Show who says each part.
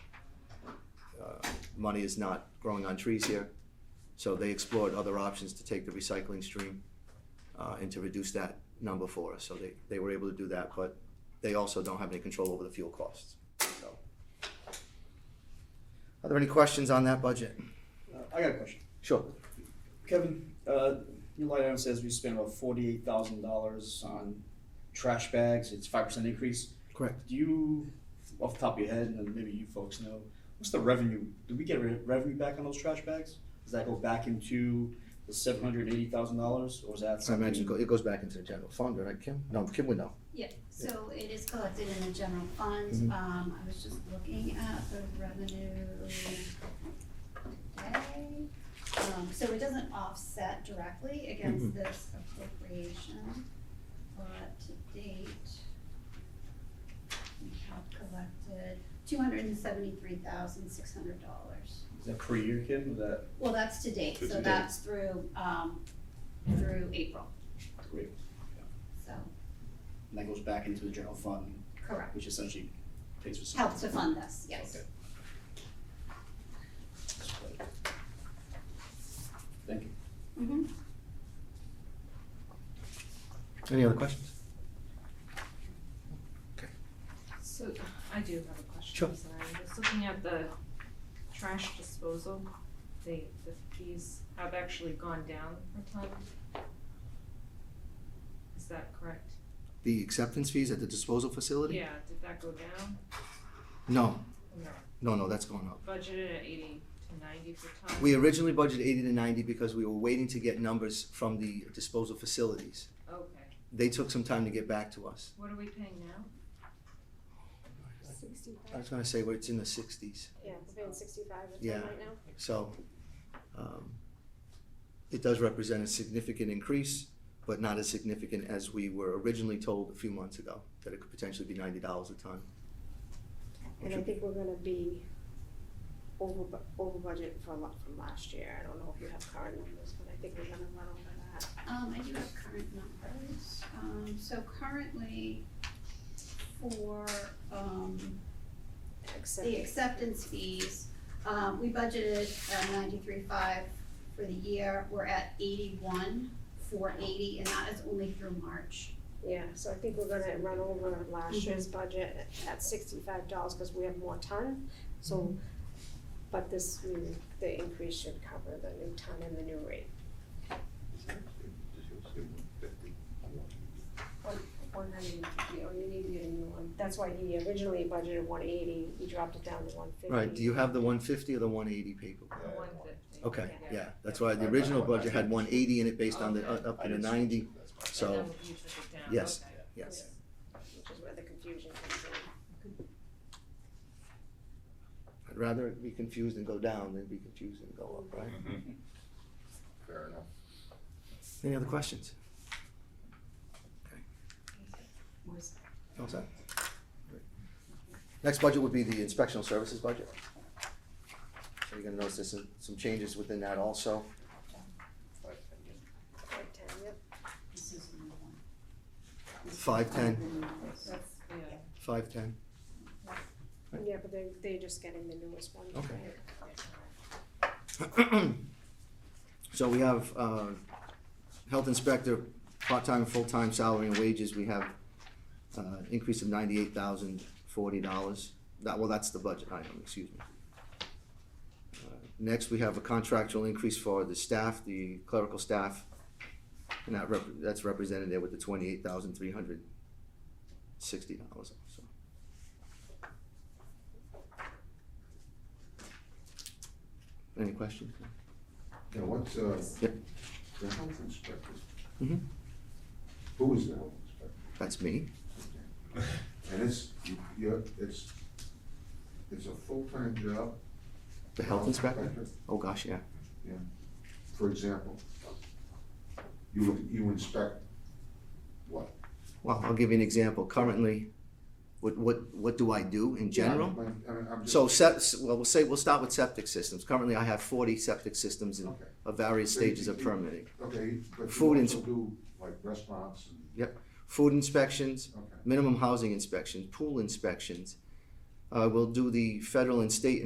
Speaker 1: uh, money is not growing on trees here. So they explored other options to take the recycling stream uh, and to reduce that number for us. So they, they were able to do that, but they also don't have any control over the fuel costs, so. Are there any questions on that budget?
Speaker 2: Uh, I got a question.
Speaker 1: Sure.
Speaker 2: Kevin, uh, your line item says we spent about forty-eight thousand dollars on trash bags. It's five percent increase.
Speaker 1: Correct.
Speaker 2: Do you, off the top of your head, and maybe you folks know, what's the revenue? Do we get re- revenue back on those trash bags? Does that go back into the seven hundred eighty thousand dollars, or is that
Speaker 1: I
Speaker 2: something?
Speaker 1: imagine it go- it goes back into the general fund, right, Kim? No, Kim would know.
Speaker 3: Yeah, so it is collected in the general fund,
Speaker 2: Mm-hmm.
Speaker 1: Mhm.
Speaker 3: um, I was just looking at the revenue today. Um, so it doesn't offset directly
Speaker 2: Mm-hmm.
Speaker 3: against this appropriation, but to date, we have collected two hundred and seventy-three thousand, six hundred dollars.
Speaker 2: Is that per year, Kim? Is that
Speaker 3: Well, that's to date,
Speaker 2: To
Speaker 3: so
Speaker 2: date.
Speaker 3: that's through, um, through April,
Speaker 2: great?
Speaker 3: so,
Speaker 2: And that goes back into the general fund,
Speaker 3: correct,
Speaker 2: which essentially pays for some.
Speaker 3: help to fund this, yes.
Speaker 2: Okay. Thank you.
Speaker 3: Mhm.
Speaker 1: Any other questions?
Speaker 4: So I do have a question,
Speaker 1: Sure.
Speaker 4: I'm sorry, I was looking at the trash disposal, they, the fees have actually gone down per ton. Is that correct?
Speaker 1: The acceptance fees at the disposal facility?
Speaker 4: Yeah, did that go down?
Speaker 1: No,
Speaker 4: No,
Speaker 1: no, no, that's going up.
Speaker 4: budgeted at eighty to ninety per ton?
Speaker 1: We originally budgeted eighty to ninety because we were waiting to get numbers from the disposal facilities.
Speaker 4: Okay,
Speaker 1: They took some time to get back to us.
Speaker 4: what are we paying now?
Speaker 1: I was gonna say, well, it's in the sixties,
Speaker 5: Yeah, it's been sixty-five or
Speaker 1: Yeah.
Speaker 5: something right now.
Speaker 1: so, um, it does represent a significant increase, but not as significant as we were originally told a few months ago, that it could potentially be ninety dollars a ton.
Speaker 5: And I think we're gonna be over, bu- over budget from, la- from last year. I don't know if you have current numbers, but I think we're gonna run over that.
Speaker 3: Um, I do have current numbers, um, so currently for, um,
Speaker 5: Except,
Speaker 3: the acceptance fees, um, we budgeted uh, ninety-three five for the year, we're at eighty-one, four eighty, and that is only through March.
Speaker 5: yeah, so I think we're gonna run over last year's budget at sixty-five dollars, cause we have more ton. So, but this, new- the increase should cover the new ton and the new rate. One hundred and fifty, or you need to get a new one. That's why he originally budgeted one eighty, he dropped it down to one fifty.
Speaker 1: Right, do you have the one fifty or the one eighty paper?
Speaker 4: The one fifty?
Speaker 1: Okay, yeah, that's why the original budget had one eighty in it based on the, uh, up to the ninety,
Speaker 4: And
Speaker 1: so,
Speaker 4: then you took it down,
Speaker 1: yes.
Speaker 4: okay.
Speaker 1: yes.
Speaker 5: Which is where the confusion comes in.
Speaker 1: I'd rather it be confused and go down than be confused and go up, right?
Speaker 6: Fair enough.
Speaker 1: Any other questions? All set? Next budget would be the inspectional services budget. So you're gonna notice there's some, some changes within that also.
Speaker 5: Right, Ted, yep.
Speaker 3: This is the new one.
Speaker 1: Five ten,
Speaker 4: That's, yeah.
Speaker 1: five ten,
Speaker 5: Yeah, but they, they're just getting the newest one.
Speaker 1: Okay.
Speaker 5: right?
Speaker 1: So we have, uh, health inspector, part-time, full-time salary and wages, we have, uh, increase of ninety-eight thousand forty dollars. That, well, that's the budget item, excuse me. Uh, Next, we have a contractual increase for the staff, the clerical staff, and that rep, that's represented there with the twenty-eight thousand three hundred sixty dollars, so. Any questions?
Speaker 6: Now, what's, uh,
Speaker 1: Yep.
Speaker 6: the health inspector?
Speaker 1: Mhm.
Speaker 6: Who is the health inspector?
Speaker 1: That's me.
Speaker 6: And it's, you- you're, it's, it's a full-time job?
Speaker 1: The health inspector? Oh, gosh, yeah.
Speaker 6: Yeah. For example, you, you inspect what?
Speaker 1: Well, I'll give you an example. Currently, what, what, what do I do in general?
Speaker 6: Yeah, I'm- I'm- I'm just-
Speaker 1: So, sep- well, we'll say, we'll start with septic systems. Currently, I have forty septic systems in
Speaker 6: Okay.
Speaker 1: of various stages of permitting.
Speaker 6: Okay, but
Speaker 1: Food
Speaker 6: you
Speaker 1: ins-
Speaker 6: also do like restaurants and,
Speaker 1: Yep. Food inspections,
Speaker 6: okay.
Speaker 1: minimum housing inspections, pool inspections. Uh, we'll do the federal and state